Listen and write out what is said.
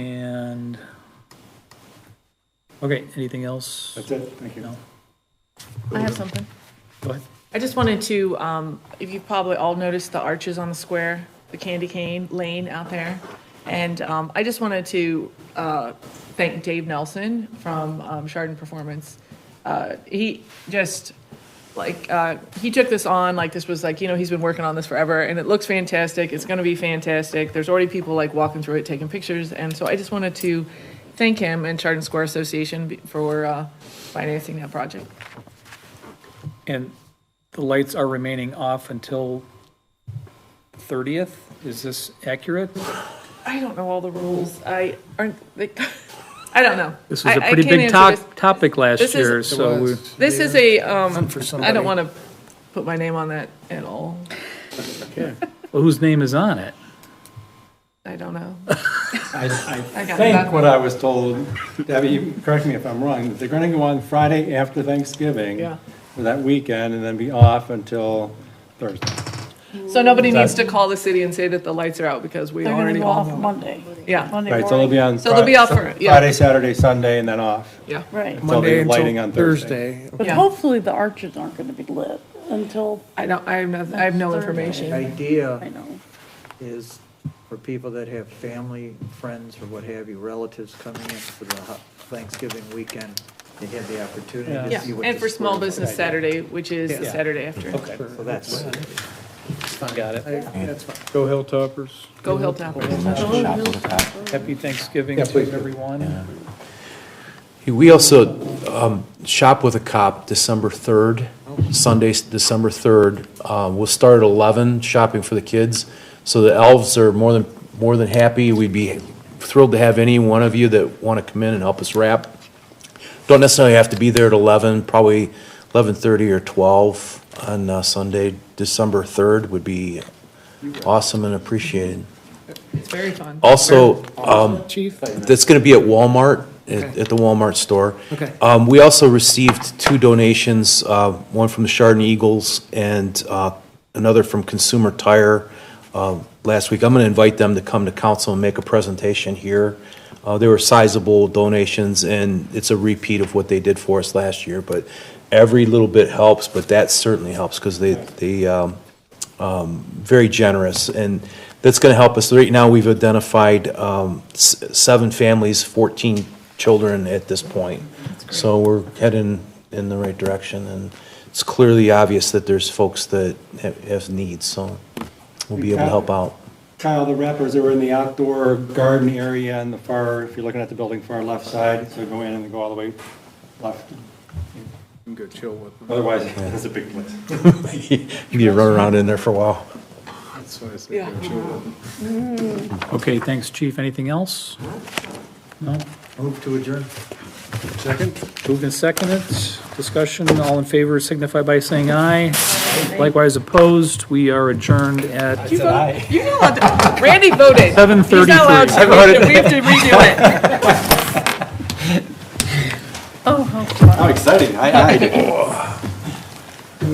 Okay, anything else? That's it, thank you. No? I have something. Go ahead. I just wanted to, um, if you probably all noticed the arches on the square, the candy cane lane out there. And, um, I just wanted to, uh, thank Dave Nelson from, um, Chardon Performance. Uh, he just, like, uh, he took this on, like, this was like, you know, he's been working on this forever and it looks fantastic. It's gonna be fantastic. There's already people like walking through it, taking pictures. And so I just wanted to thank him and Chardon Square Association be- for, uh, financing that project. And the lights are remaining off until 30th? Is this accurate? I don't know all the rules. I aren't. They, I don't know. This I- was a I pretty can't big answer to- this. topic last This is- year, so we- This is a. Um, for I somebody. don't want to put my name on that at all. well, whose name is on it? I don't know. I, I I got think that. what I was told, Debbie, you correct me if I'm wrong, that they're gonna go on Friday after Thanksgiving. Yeah. For that weekend and then be off until Thursday. So nobody needs to call the city and say that the lights are out because we They're gonna already go all off know. Monday. Yeah, Monday Right, so they'll be morning. on. So they'll be Fri- off for- yeah. Friday, Saturday, Sunday, and then off. yeah. Right. They'll Monday be until lighting on Thursday. But Yeah. hopefully the arches aren't gonna be lit until, I don't. I have no. I have no The information. I idea know. is for people that have family, friends, or what have you, relatives coming in for the hu- Thanksgiving weekend, they have the opportunity to Yeah, see what. and the for small square business Saturday, which is the Yeah. Saturday after. looks like. So that's, Got it. that's fine. Go Hilltoppers. Go Hilltop. Happy Thanksgiving Yeah, please to do. everyone. We also um, shop with a cop December 3rd, Sunday, December 3rd. Um, We'll start at 11, shopping for the kids. So the elves are more than, more than happy. We'd be thrilled to have any one of you that want to come in and help us wrap. Don't necessarily have to be there at 11, probably 11:30 or 12 on uh, Sunday, December 3rd would be awesome and appreciated. It's very fun. Oh, Also, um, Chief? that's going to be at Walmart, at at the Walmart store. Okay. Um, We also received two donations, uh, one from the Chardon Eagles and uh, another from Consumer Tire uh, last week. I'm going to invite them to come to council and make a presentation here. Uh, They were sizable donations, and it's a repeat of what they did for us last year, but every little bit helps, but that certainly helps because they, they um, very generous, and that's going to help us. Right now, we've identified um, s- seven families, 14 children at this point. So we're heading in the right direction, and it's clearly obvious that there's folks that ha- have needs, so we'll be able to help out. Kyle, the wrappers are in the outdoor garden area on the far, if you're looking at the building far left side, so go in and then go all the way left. You can go chill with them. Otherwise, it's a big place. You need to run around in there for a while. That's what I say, go chill with them. Okay, thanks, chief. Anything else? No? Move to adjourn. Moved and seconded. Discussion, all in favor signify by saying aye. Likewise opposed, we are adjourned at You vote- You're not allowed to- Randy voted. He's not allowed to. We have to- We have to redo it. How exciting, I, I